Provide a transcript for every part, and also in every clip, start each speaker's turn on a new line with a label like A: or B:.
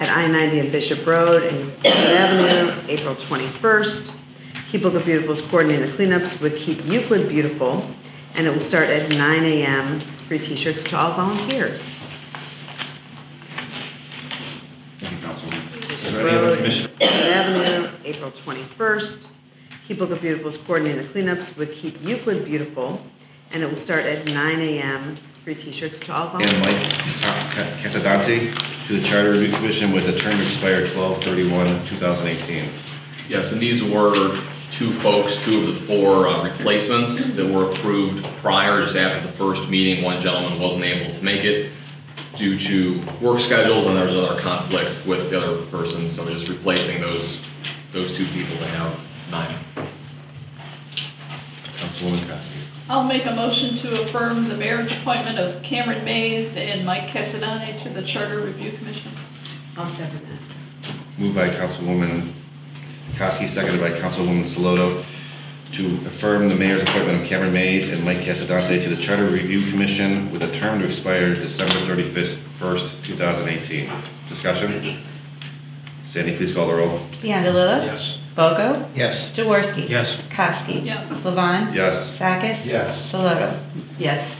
A: at I-90 and Bishop Road and Cleveland Avenue, April 21st. Keep Look Beautiful is coordinating the cleanups with Keep Euclid Beautiful, and it will start at 9 a.m. Free t-shirts to all volunteers.
B: Thank you, Councilwoman. Is there any other
A: Road,
B: commissioner?
A: Cleveland Avenue, April 21st. Keep Look Beautiful is coordinating the cleanups with Keep Euclid Beautiful, and it will start at 9 a.m. Free t-shirts to all
B: And
A: volunteers.
B: Mike Sa- Ca- Casadante to the Charter Review Commission with a term to expire 12/31/2018.
C: Yes, and these were two folks, two of the four uh, replacements that were approved prior, just after the first meeting. One gentleman wasn't able to make it due to work schedules, and there was other conflicts with the other person, so we're just replacing those, those two people to have nine.
B: Councilwoman Koski.
D: I'll make a motion to affirm the mayor's appointment of Cameron Mays and Mike Cassidani to the Charter Review Commission.
A: I'll second that.
B: Moved by Councilwoman Koski, seconded by Councilwoman Saloto, to affirm the mayor's appointment of Cameron Mays and Mike Casadante to the Charter Review Commission with a term to expire December 31st, 2018. Discussion? Sandy, please call the roll.
E: Biondelula.
F: Yes.
E: Bogo.
F: Yes.
E: Jaworski.
F: Yes.
E: Kowski.
D: Yes.
E: Levon.
B: Yes.
E: Sakis.
F: Yes.
E: Saloto.
A: Yes.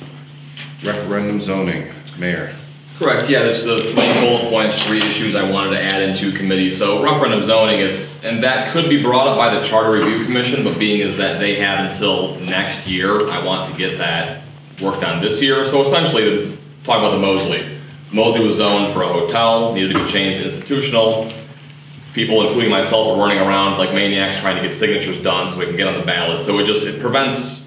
B: Referendum zoning, Mayor.
C: Correct, yeah, there's the three bullet points, three issues I wanted to add into committee. So referendum zoning, it's, and that could be brought up by the Charter Review Commission, but being is that they have until next year, I want to get that worked on this year. So essentially, talking about the Mosley. Mosley was zoned for a hotel, needed to be changed to institutional. People, including myself, were running around like maniacs trying to get signatures done so we can get on the ballot. So it just, it prevents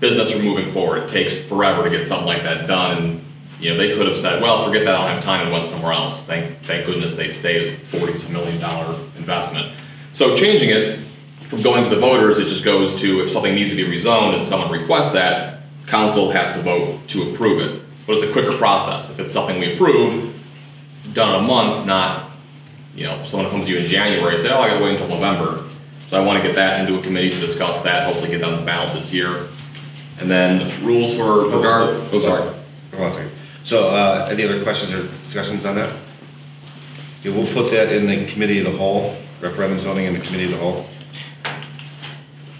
C: business from moving forward. It takes forever to get something like that done. And, you know, they could have said, well, forget that, I don't have time and went somewhere else. Thank, thank goodness they stayed at forty some million dollar investment. So changing it from going to the voters, it just goes to if something needs to be rezoned and someone requests that, council has to vote to approve it. But it's a quicker process. If it's something we approve, it's done in a month, not, you know, someone comes to you in January and say, oh, I gotta wait until November. So I wanna get that into a committee to discuss that, hopefully get that on the ballot this year. And then rules for regard, oh, sorry.
B: Hold on a second. So, uh, any other questions or discussions on that? Yeah, we'll put that in the committee of the whole, referendum zoning in the committee of the whole.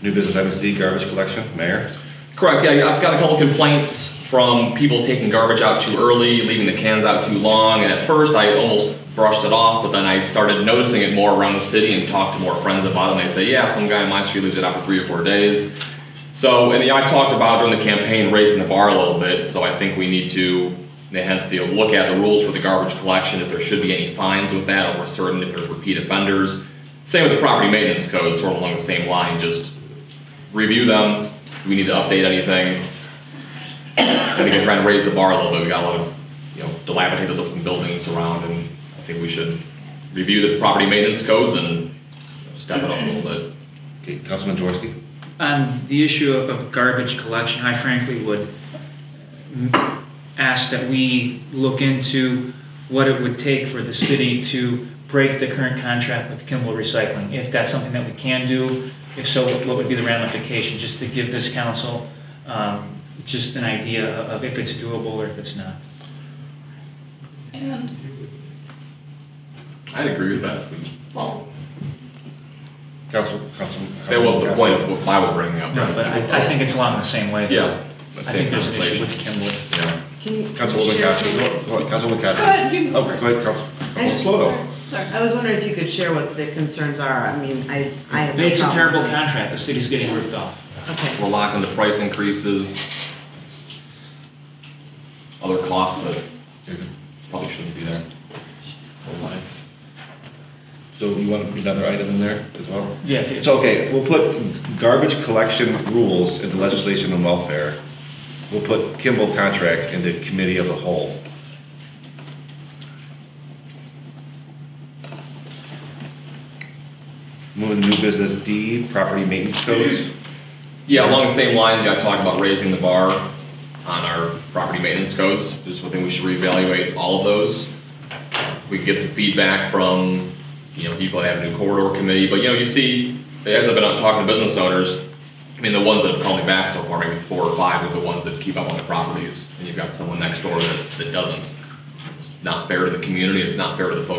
B: New business item C, garbage collection, mayor.
C: Correct, yeah, I've got a couple complaints from people taking garbage out too early, leaving the cans out too long, and at first I almost brushed it off, but then I started noticing it more around the city and talked to more friends about it, and they say, yeah, some guy in my street leaves it out for three or four days. So, and I talked about during the campaign raising the bar a little bit, so I think we need to, hence the look at the rules for the garbage collection, if there should be any fines with that, or we're certain if there's repeat offenders. Same with the property maintenance code, sort of along the same line, just review them. Do we need to update anything? I think we're trying to raise the bar a little bit. We got a lot of, you know, dilapidated looking buildings around and I think we should review the property maintenance codes and step it up a little bit.
B: Okay, Councilman Jaworski.
G: On the issue of- of garbage collection, I frankly would mm, ask that we look into what it would take for the city to break the current contract with Kimball Recycling, if that's something that we can do. If so, what what would be the ramification, just to give this council um, just an idea of if it's doable or if it's not.
D: And
C: I'd agree with that. Well.
B: Council, council.
C: That wasn't the point of what I was bringing up.
G: No, but I I think it's along the same way.
C: Yeah.
G: I think there's an issue with Kimball.
C: Yeah.
A: Can you
B: Councilwoman
A: share
B: Koski,
A: some-
B: hold on, Councilwoman
D: Go
B: Koski.
D: ahead, you can go
B: Oh,
D: first.
B: wait, Council,
A: I just-
B: Slow.
D: Sorry.
A: I was wondering if you could share what the concerns are. I mean, I, I have no
G: It's a
A: problem.
G: terrible contract, the city's getting ripped off.
A: Okay.
C: We're locking the price increases. Other costs that probably shouldn't be there.
B: So you want to put another item in there as well?
G: Yeah. if-
B: It's okay, we'll put garbage collection rules into legislation and welfare. We'll put Kimball contract into committee of the whole. Moving to new business D, property maintenance codes.
C: Yeah, along the same lines, yeah, I talked about raising the bar on our property maintenance codes. Just one thing we should reevaluate all of those. We can get some feedback from, you know, people that have a new corridor committee, but you know, you see, as I've been out talking to business owners, I mean, the ones that have called me back so far, maybe four or five are the ones that keep up on the properties, and you've got someone next door that, that doesn't. It's not fair to the community, it's not fair to the folks